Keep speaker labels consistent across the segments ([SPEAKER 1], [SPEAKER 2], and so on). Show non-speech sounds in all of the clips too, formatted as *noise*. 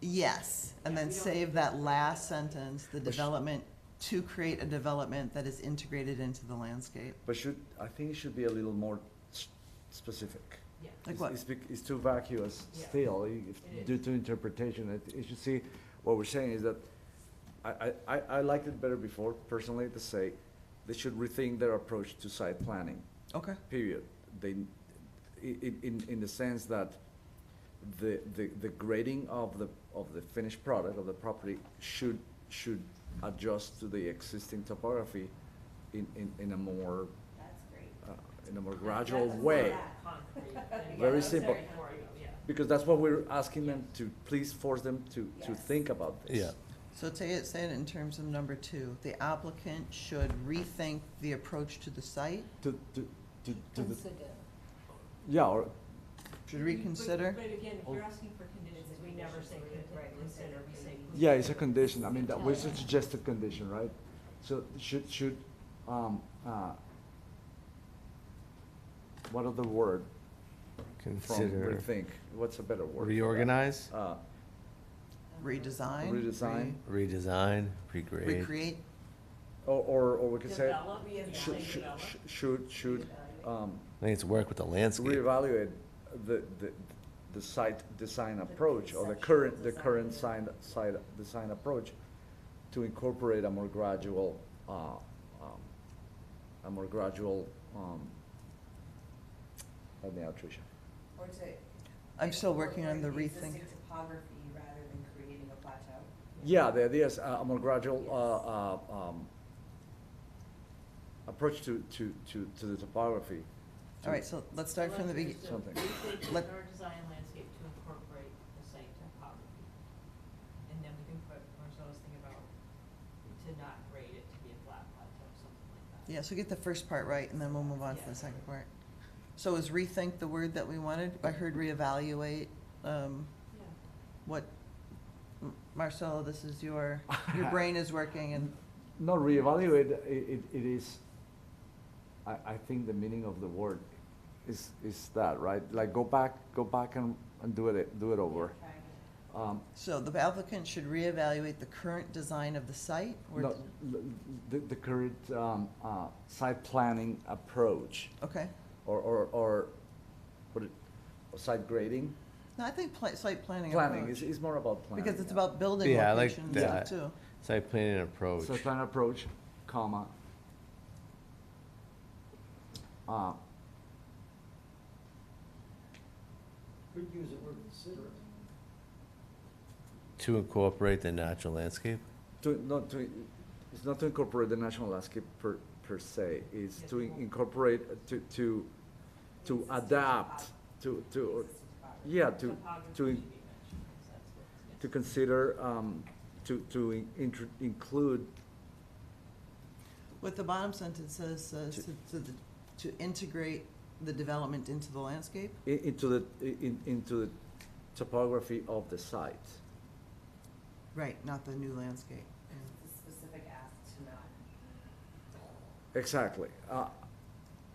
[SPEAKER 1] Yes, and then save that last sentence, the development, to create a development that is integrated into the landscape.
[SPEAKER 2] But should, I think it should be a little more s- specific.
[SPEAKER 3] Yeah.
[SPEAKER 1] Like
[SPEAKER 2] It's-
[SPEAKER 1] what?
[SPEAKER 2] It's, bec- it's too vacuous
[SPEAKER 3] Yeah.
[SPEAKER 2] still, i- if-
[SPEAKER 3] It is.
[SPEAKER 2] due to interpretation. It- You should see, what we're saying is that, I, I- I, I liked it better before personally to say, they should rethink their approach to site planning,
[SPEAKER 1] Okay,
[SPEAKER 2] period. They, in, in, in the sense that the, the, the grading of the, of the finished product, of the property, should, should adjust to the existing topography in, in, in a more,
[SPEAKER 4] That's great.
[SPEAKER 2] uh, in a more gradual
[SPEAKER 3] That's
[SPEAKER 2] way.
[SPEAKER 3] not concrete.
[SPEAKER 4] Very
[SPEAKER 3] Yeah, that's
[SPEAKER 2] simple.
[SPEAKER 3] boring, yeah.
[SPEAKER 2] Because that's what we're asking them to, please force them to, to
[SPEAKER 4] Yes.
[SPEAKER 2] think about this.
[SPEAKER 5] Yeah.
[SPEAKER 1] so say it, say it in terms of number two, the applicant should rethink the approach to the site,
[SPEAKER 2] To, to, to, to the, yeah, or,
[SPEAKER 1] should
[SPEAKER 3] But-
[SPEAKER 1] reconsider.
[SPEAKER 3] But again, if you're asking for conditions, we never say con- consider, we say.
[SPEAKER 2] yeah, it's a condition, I mean, that was a suggested condition, right? So should, should, um, uh, what other word from
[SPEAKER 5] Consider
[SPEAKER 2] rethink? What's a better word? for that?
[SPEAKER 5] reorganize,
[SPEAKER 2] Uh,
[SPEAKER 1] Redesign.
[SPEAKER 2] Redesign.
[SPEAKER 5] redesign,
[SPEAKER 1] re-
[SPEAKER 5] regrade.
[SPEAKER 1] Recreate,
[SPEAKER 2] or, or, or we could say,
[SPEAKER 3] Develop,
[SPEAKER 2] should,
[SPEAKER 3] reevaluate,
[SPEAKER 2] should,
[SPEAKER 3] develop.
[SPEAKER 2] should, should, um,
[SPEAKER 5] I think it's work with the landscape.
[SPEAKER 2] reevaluate the, the, the site design approach or the
[SPEAKER 4] conceptual
[SPEAKER 2] current, the
[SPEAKER 4] design.
[SPEAKER 2] current sign, site design approach to incorporate a more gradual, uh, um, a more gradual, um, help me out, Tricia.
[SPEAKER 4] Or to.
[SPEAKER 1] I'm still working on the
[SPEAKER 4] incorporate
[SPEAKER 1] rethink.
[SPEAKER 4] Existing topography rather than creating a plateau.
[SPEAKER 2] Yeah, the idea is a a more gradual, uh, uh, um, approach to, to, to, to the topography.
[SPEAKER 1] all right, so let's start from the
[SPEAKER 3] Select
[SPEAKER 1] beginning.
[SPEAKER 3] is to
[SPEAKER 2] Something.
[SPEAKER 3] Rethink the
[SPEAKER 1] Let-
[SPEAKER 3] indoor design landscape to incorporate the site topography. And then we can put, Marcelo's thing about to not grade it to be a flat plateau, something like that.
[SPEAKER 1] Yeah, so get the first part right, and then we'll move on to
[SPEAKER 3] Yeah.
[SPEAKER 1] the second part. So is rethink the word that we wanted? I heard reevaluate, um,
[SPEAKER 3] Yeah.
[SPEAKER 1] what, M- Marcelo, this is your,
[SPEAKER 2] *laughs*
[SPEAKER 1] your brain is working and,
[SPEAKER 2] Not reevaluate, i- it, it is, I, I think the meaning of the word is, is that, right? Like, go back, go back and, and do it, do it over.
[SPEAKER 4] Try and-
[SPEAKER 2] Um,
[SPEAKER 1] so the applicant should reevaluate the current design of the site? or-
[SPEAKER 2] no, l- the, the current, um, uh, site planning approach,
[SPEAKER 1] Okay,
[SPEAKER 2] or, or, or, what it, or site grading?
[SPEAKER 1] no, I think pla- site planning
[SPEAKER 2] Planning, is
[SPEAKER 1] approach,
[SPEAKER 2] is more about planning.
[SPEAKER 1] because it's
[SPEAKER 2] yeah.
[SPEAKER 1] about building
[SPEAKER 5] Yeah, I like
[SPEAKER 1] locations
[SPEAKER 5] that.
[SPEAKER 1] too.
[SPEAKER 5] Site planning approach.
[SPEAKER 2] Site plan approach, comma. Uh,
[SPEAKER 6] Could use the word considerate.
[SPEAKER 5] To incorporate the natural landscape?
[SPEAKER 2] To, not to, it's not to incorporate the national landscape per, per se, it's to in- incorporate, uh, to, to, to
[SPEAKER 4] Existing
[SPEAKER 2] adapt,
[SPEAKER 4] topography.
[SPEAKER 2] to, to,
[SPEAKER 4] Existing topography.
[SPEAKER 2] yeah, to,
[SPEAKER 3] Topography
[SPEAKER 2] to,
[SPEAKER 3] should
[SPEAKER 2] in-
[SPEAKER 3] be mentioned, 'cause that's what-
[SPEAKER 2] to
[SPEAKER 3] yeah.
[SPEAKER 2] consider, um, to, to in- intr- include,
[SPEAKER 1] What the bottom sentence says, says
[SPEAKER 2] To-
[SPEAKER 1] to, to, the- to integrate the development into the landscape?
[SPEAKER 2] i- into the, i- in, into the topography of the site.
[SPEAKER 1] Right, not the new landscape.
[SPEAKER 4] It's a specific ask to not.
[SPEAKER 3] Mm-hmm.
[SPEAKER 2] Exactly, uh,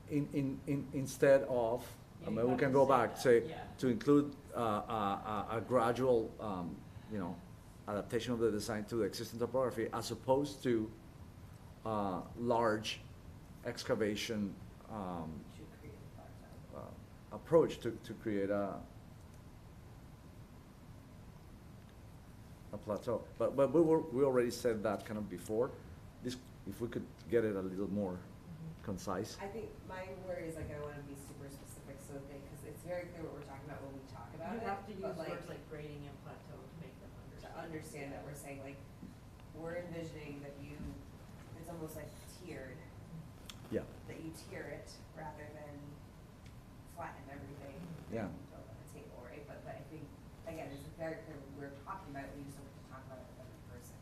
[SPEAKER 2] in, in, in, instead of, I
[SPEAKER 3] Yeah, you
[SPEAKER 2] mean, we
[SPEAKER 3] have
[SPEAKER 2] can
[SPEAKER 3] to
[SPEAKER 2] go
[SPEAKER 3] say
[SPEAKER 2] back,
[SPEAKER 3] that,
[SPEAKER 2] say,
[SPEAKER 3] yeah.
[SPEAKER 2] to include uh, a, a, a gradual, um, you know, adaptation of the design to the existing topography as opposed to uh, large excavation um,
[SPEAKER 4] should create a plateau.
[SPEAKER 2] uh, approach to, to create a a plateau. But, but we were, we already said that kind of before. This, if we could get it a little more concise.
[SPEAKER 4] I think my worry is like I wanna be super specific so that they, cause it's very clear what we're talking about when we talk about
[SPEAKER 3] You
[SPEAKER 4] it.
[SPEAKER 3] have to use
[SPEAKER 4] but,
[SPEAKER 3] words like grading and plateau to make them
[SPEAKER 4] to
[SPEAKER 3] understand.
[SPEAKER 4] understand that we're saying like, we're envisioning that you, it's almost like tiered,
[SPEAKER 3] Mm-hmm.
[SPEAKER 2] Yeah,
[SPEAKER 4] that you tier it rather than flatten everything.
[SPEAKER 2] Yeah.
[SPEAKER 4] and Build on a table, right? But, but I think, again, it's very clear what we're talking about, we just don't have to talk about it with every person.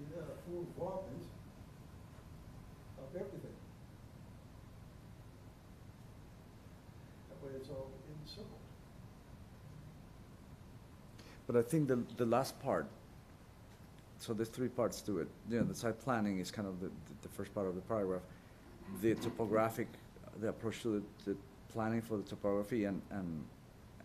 [SPEAKER 6] You got a full involvement of everything. That way it's all in simple.
[SPEAKER 2] but I think the, the last part, so there's three parts to it. You know, the site planning is kind of the, the first part of the paragraph. The topographic, the approach to the, the planning for the topography and, and